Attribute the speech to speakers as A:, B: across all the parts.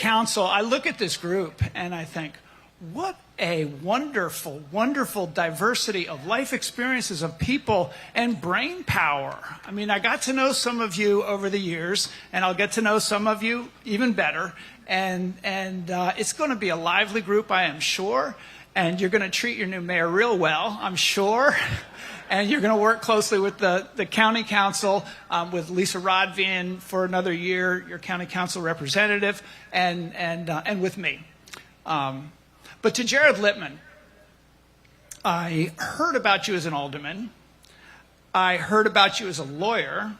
A: council, I look at this group and I think, what a wonderful, wonderful diversity of life experiences of people and brain power. I mean, I got to know some of you over the years, and I'll get to know some of you even better. And, and uh, it's going to be a lively group, I am sure. And you're going to treat your new mayor real well, I'm sure. and you're going to work closely with the, the county council, um, with Lisa Rodvian for another year, your county council representative, and, and, uh, and with me. Um, but to Jared Littman, I heard about you as an alderman. I heard about you as a lawyer.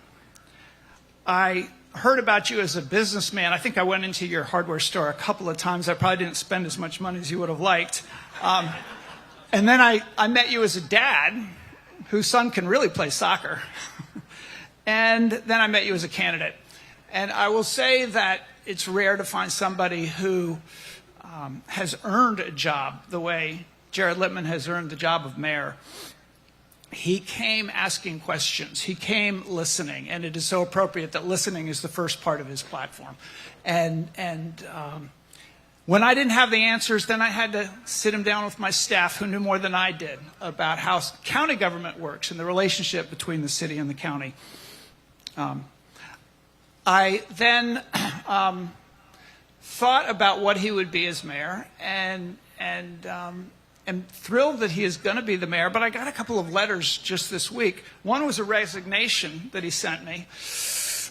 A: I heard about you as a businessman. I think I went into your hardware store a couple of times. I probably didn't spend as much money as you would have liked. Um, and then I, I met you as a dad whose son can really play soccer. and then I met you as a candidate. And I will say that it's rare to find somebody who um, has earned a job the way Jared Littman has earned the job of mayor. He came asking questions. He came listening, and it is so appropriate that listening is the first part of his platform. And and um, when I didn't have the answers, then I had to sit him down with my staff, who knew more than I did about how county government works and the relationship between the city and the county. Um, I then um, thought about what he would be as mayor, and and um, am thrilled that he is going to be the mayor. But I got a couple of letters just this week. One was a resignation that he sent me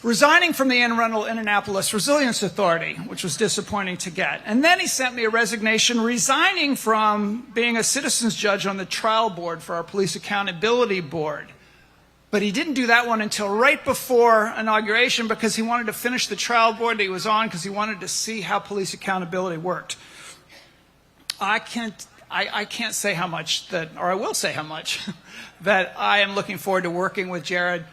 A: resigning from the Anne Arundel Indianapolis Resilience Authority, which was disappointing to get. And then he sent me a resignation resigning from being a citizens judge on the trial board for our police accountability board. But he didn't do that one until right before inauguration because he wanted to finish the trial board that he was on because he wanted to see how police accountability worked. I can't. I, I can't say how much that, or I will say how much, that I am looking forward to working with Jared.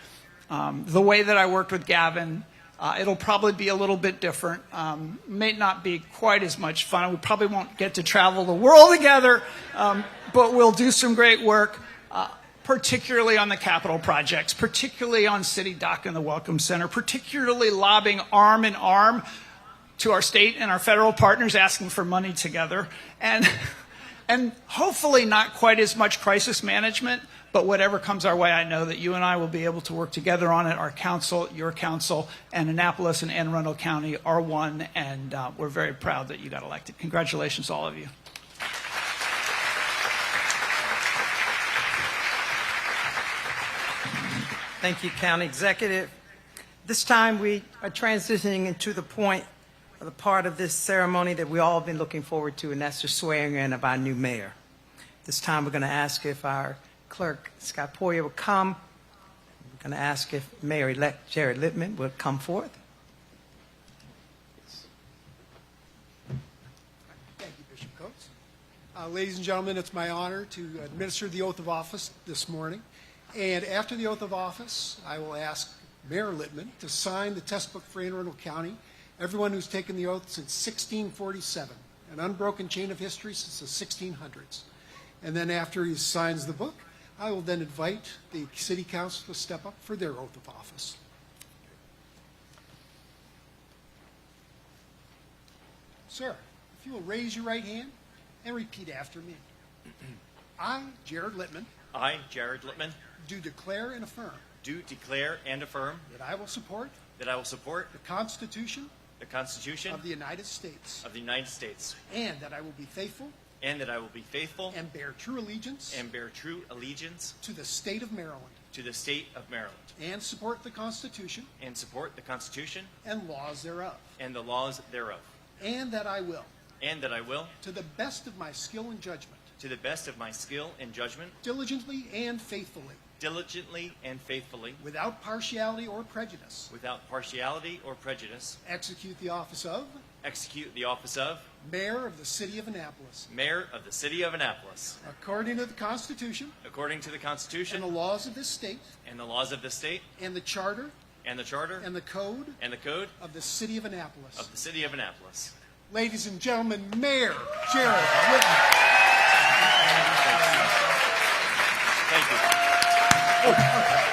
A: Um, the way that I worked with Gavin. Uh, it'll probably be a little bit different. Um, may not be quite as much fun. We probably won't get to travel the world together, um, but we'll do some great work, uh, particularly on the capital projects, particularly on City Dock and the Welcome Center, particularly lobbying arm in arm to our state and our federal partners, asking for money together, and and hopefully not quite as much crisis management, but whatever comes our way, I know that you and I will be able to work together on it. Our council, your council, and Annapolis and Anne Arundel County are one, and uh, we're very proud that you got elected. Congratulations, all of you.
B: Thank you, County Executive. This time we are transitioning into the point, the part of this ceremony that we all have been looking forward to, and that's the swearing in of our new mayor. This time we're going to ask if our Clerk Scott Poyer will come. I'm going to ask if Mayor-elect Jared Littman would come forth.
C: Thank you, Bishop Coates. Uh, Ladies and gentlemen, it's my honor to administer the oath of office this morning. And after the oath of office, I will ask Mayor Littman to sign the textbook for Anne Arundel County, everyone who's taken the oath since 1647, an unbroken chain of history since the 1600s. And then after he signs the book, I will then invite the city council to step up for their oath of office. Sir, if you will raise your right hand and repeat after me. I, Jared Littman,
D: I, Jared Littman,
C: do declare and affirm
D: do declare and affirm
C: that I will support
D: that I will support
C: the Constitution
D: the Constitution
C: of the United States
D: of the United States
C: and that I will be faithful
D: and that I will be faithful
C: and bear true allegiance
D: and bear true allegiance
C: to the state of Maryland
D: to the state of Maryland
C: and support the Constitution
D: and support the Constitution
C: and laws thereof,
D: and the laws thereof,
C: and that I will,
D: and that I will,
C: to the best of my skill and judgment,
D: to the best of my skill and judgment,
C: diligently and faithfully,
D: diligently and faithfully,
C: without partiality or prejudice,
D: without partiality or prejudice,
C: execute the office of
D: execute the office of
C: Mayor of the City of Annapolis
D: Mayor of the City of Annapolis
C: according to the Constitution
D: according to the Constitution
C: and the laws of this state
D: and the laws of the state
C: and the charter
D: and the Charter
C: and the code
D: and the Code
C: of the City of
D: of
C: Annapolis.
D: the City of Annapolis.
C: Ladies and gentlemen, Mayor Jared Whitman.
D: Thank you.